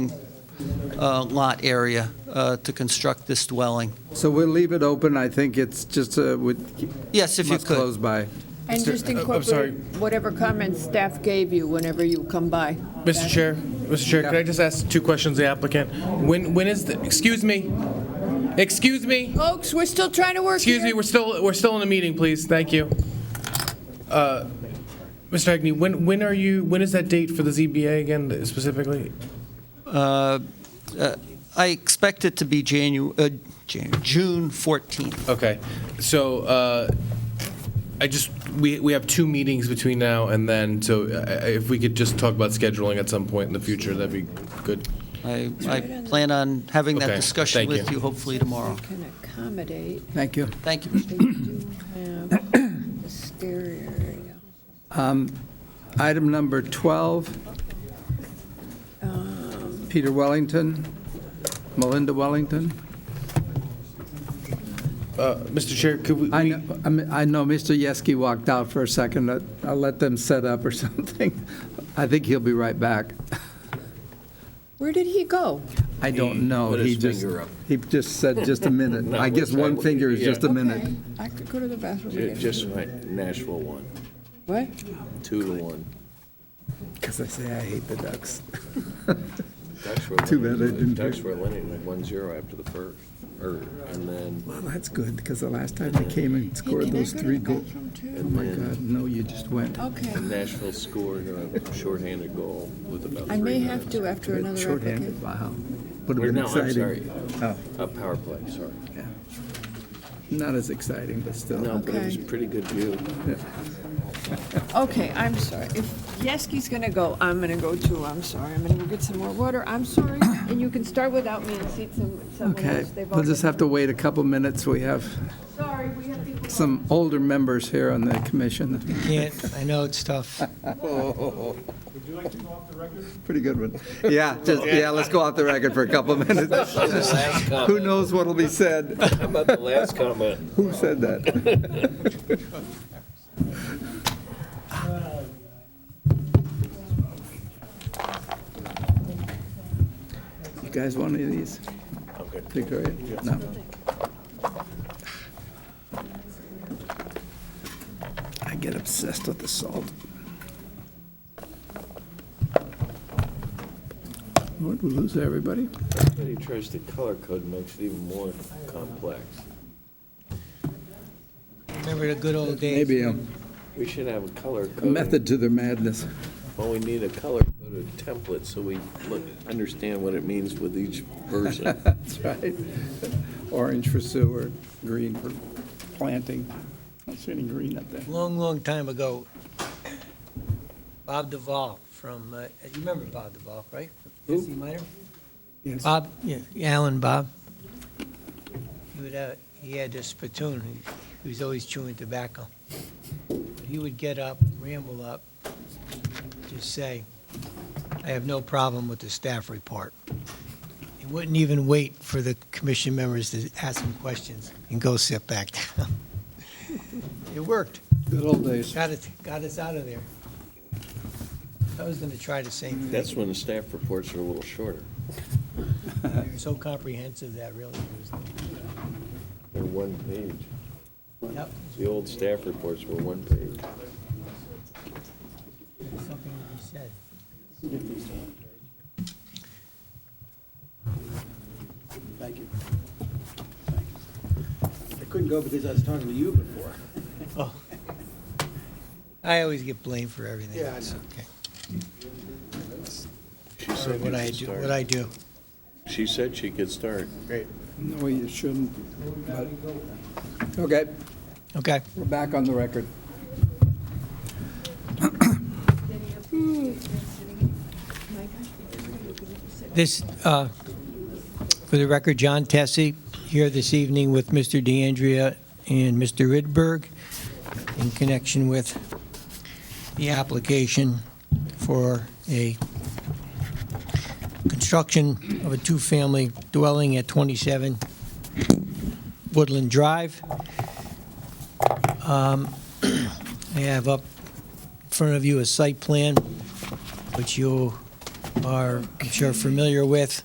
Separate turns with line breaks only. uh, lot area uh, to construct this dwelling.
So we'll leave it open. I think it's just, uh, would,
Yes, if you
must
could.
close by.
And just incorporate whatever comments staff gave you whenever you come by.
Mr. Chair, Mr. Chair, could I just ask two questions of the applicant? When, when is the, excuse me, excuse me,
Folks, we're still trying to work
excuse me,
here.
we're still, we're still in a meeting, please, thank you. Uh, Mr. Agney, when, when are you, when is that date for the ZBA again specifically?
I expect it to be Janu, uh, Jan- June 14th.
Okay, so uh, I just, we, we have two meetings between now and then, so I- I- if we could just talk about scheduling at some point in the future, that'd be good.
I, I plan on having that
Okay,
discussion
thank
with
you.
you hopefully tomorrow.
Can accommodate,
Thank you.
Thank you.
they do have a stereo area.
Item number 12,
Uh,
Peter Wellington, Melinda Wellington.
Uh, Mr. Chair, could we?
I know, I mean, I know Mr. Yeski walked out for a second. I- I'll let them set up or something. I think he'll be right back.
Where did he go?
I don't know.
put
He
his
just,
finger up.
he just said just a minute. I guess one finger is just a minute.
Okay, I could go to the bathroom
Ju-
again.
Just my Nashville one,
What?
two to one.
Because I say I hate the Ducks.
Ducks were
Too bad I
winning-
didn't
Ducks
pick-
were winning one zero after the first, or, and then,
Well, that's good, because the last time they came and
Hey, can I
scored those
go to
three
the
goals.
bathroom too?
Oh, my God, no, you just went.
Okay,
Nashville scored a shorthanded goal with about
I
three
may
minutes.
have to after another
Shorthanded,
applicant.
wow. Would
Or
have been
No, I'm
exciting.
sorry,
Oh,
a power play, sorry.
yeah. Not as exciting, but
No,
still.
but it was a
Okay.
pretty good view.
Okay, I'm sorry. If Yeski's gonna go, I'm gonna go too. I'm sorry. I'm gonna go get some more water. I'm sorry. And you can start without me and seat some, someone
Okay,
else. They've
we'll just
already-
have to wait a couple minutes. We have
Sorry, we have people.
some older members here on the commission.
Can't, I know it's tough.
Pretty good one. Yeah, just, yeah, let's go off the record for a couple minutes. Who knows what'll be said?
How about the last comment?
Who said that? You guys want any of these? Victoria? No. I get obsessed with the salt. Would we lose everybody?
Everybody tries to color code, makes it even more complex.
Remember the good old days?
Maybe a
We should have a color code.
method to their madness.
Well, we need a color coded template so we look, understand what it means with each version.
That's right. Orange for sewer, green for planting. I don't see any green up there.
Long, long time ago, Bob Duvall from, uh, you remember Bob Duvall, right? Is he minor?
Yes.
Bob, yeah, Alan Bob. He would, uh, he had this spittoon, he, he was always chewing tobacco. He would get up, ramble up, just say, I have no problem with the staff report. He wouldn't even wait for the commission members to ask him questions and go sit back down. It worked.
Good old days.
Got it, got us out of there. I was gonna try the same thing.
That's when the staff reports are a little shorter.
You're so comprehensive that really was,
They're one page.
yep,
The old staff reports were one page.
something to be said.
Thank you. Thank you. I couldn't go because I was talking to you before.
Oh. I always get blamed for everything.
Yeah, I
It's
know.
okay.
She
Sorry,
said you
What I
could
do, what I
start.
do.
She said she could start.
No, you shouldn't. but- Okay,
Okay.
we're back on the record.
This, uh, for the record, John Tessie here this evening with Mr. DeAndrea and Mr. Ridberg in connection with the application for a construction of a two-family dwelling at 27 Woodland Drive. Um, I have up in front of you a site plan, which you are, I'm sure, familiar with.